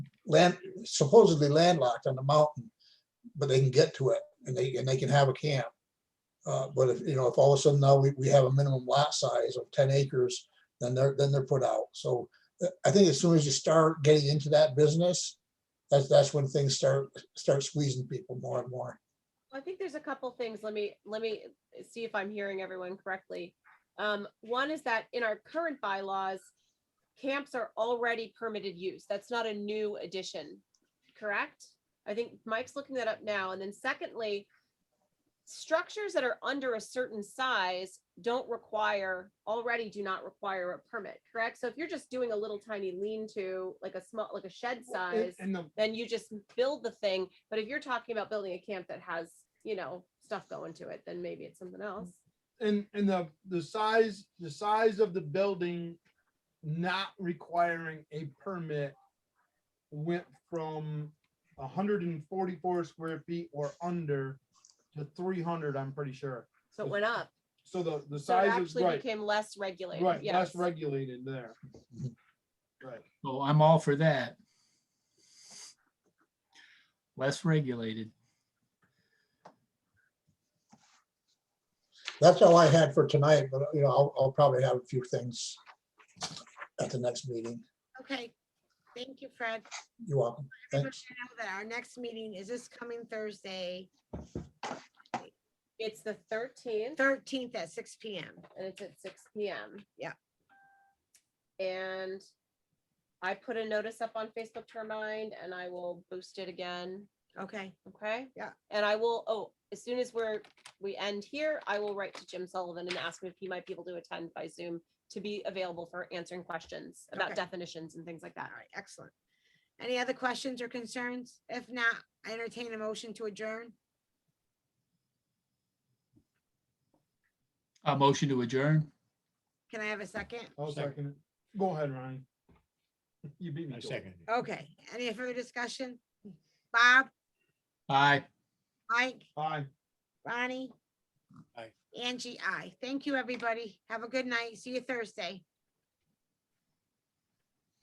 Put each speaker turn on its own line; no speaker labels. land, supposedly landlocked on the mountain, but they can get to it and they, and they can have a camp. Uh, but if, you know, if all of a sudden now we, we have a minimum lot size of ten acres, then they're, then they're put out. So uh, I think as soon as you start getting into that business, that's, that's when things start, start squeezing people more and more.
I think there's a couple things. Let me, let me see if I'm hearing everyone correctly. Um, one is that in our current bylaws, camps are already permitted use. That's not a new addition, correct? I think Mike's looking that up now. And then secondly, structures that are under a certain size don't require, already do not require a permit, correct? So if you're just doing a little tiny lean-to, like a small, like a shed size,
And the,
then you just build the thing. But if you're talking about building a camp that has, you know, stuff going to it, then maybe it's something else.
and, and the, the size, the size of the building not requiring a permit went from hundred and forty-four square feet or under to three hundred, I'm pretty sure.
So it went up.
So the, the
So it
size is
actually
right,
became less regulated.
right,
yes.
less regulated there. Right.
So I'm all for that. Less regulated.
That's all I had for tonight, but you know, I'll, I'll probably have a few things at the next meeting.
Okay, thank you, Fred.
You're welcome.
Everybody
Thanks.
should know that our next meeting is this coming Thursday,
It's the thirteenth
thirteenth at six P M.
and it's at six P M.
Yeah.
And I put a notice up on Facebook to remind and I will boost it again.
Okay,
Okay?
Yeah.
And I will, oh, as soon as we're, we end here, I will write to Jim Sullivan and ask him if he might be able to attend by Zoom to be available for answering questions about
Okay.
definitions and things like
all
that.
right, excellent. Any other questions or concerns? If not, I entertain a motion to adjourn.
A motion to adjourn.
Can I have a second?
I'll
Second.
second it. Go ahead, Ronnie. You beat me.
I
to it.
second it.
Okay, any further discussion? Bob,
Aye.
Mike,
Aye.
Ronnie?
Aye.
Angie, I. Thank you, everybody. Have a good night. See you Thursday.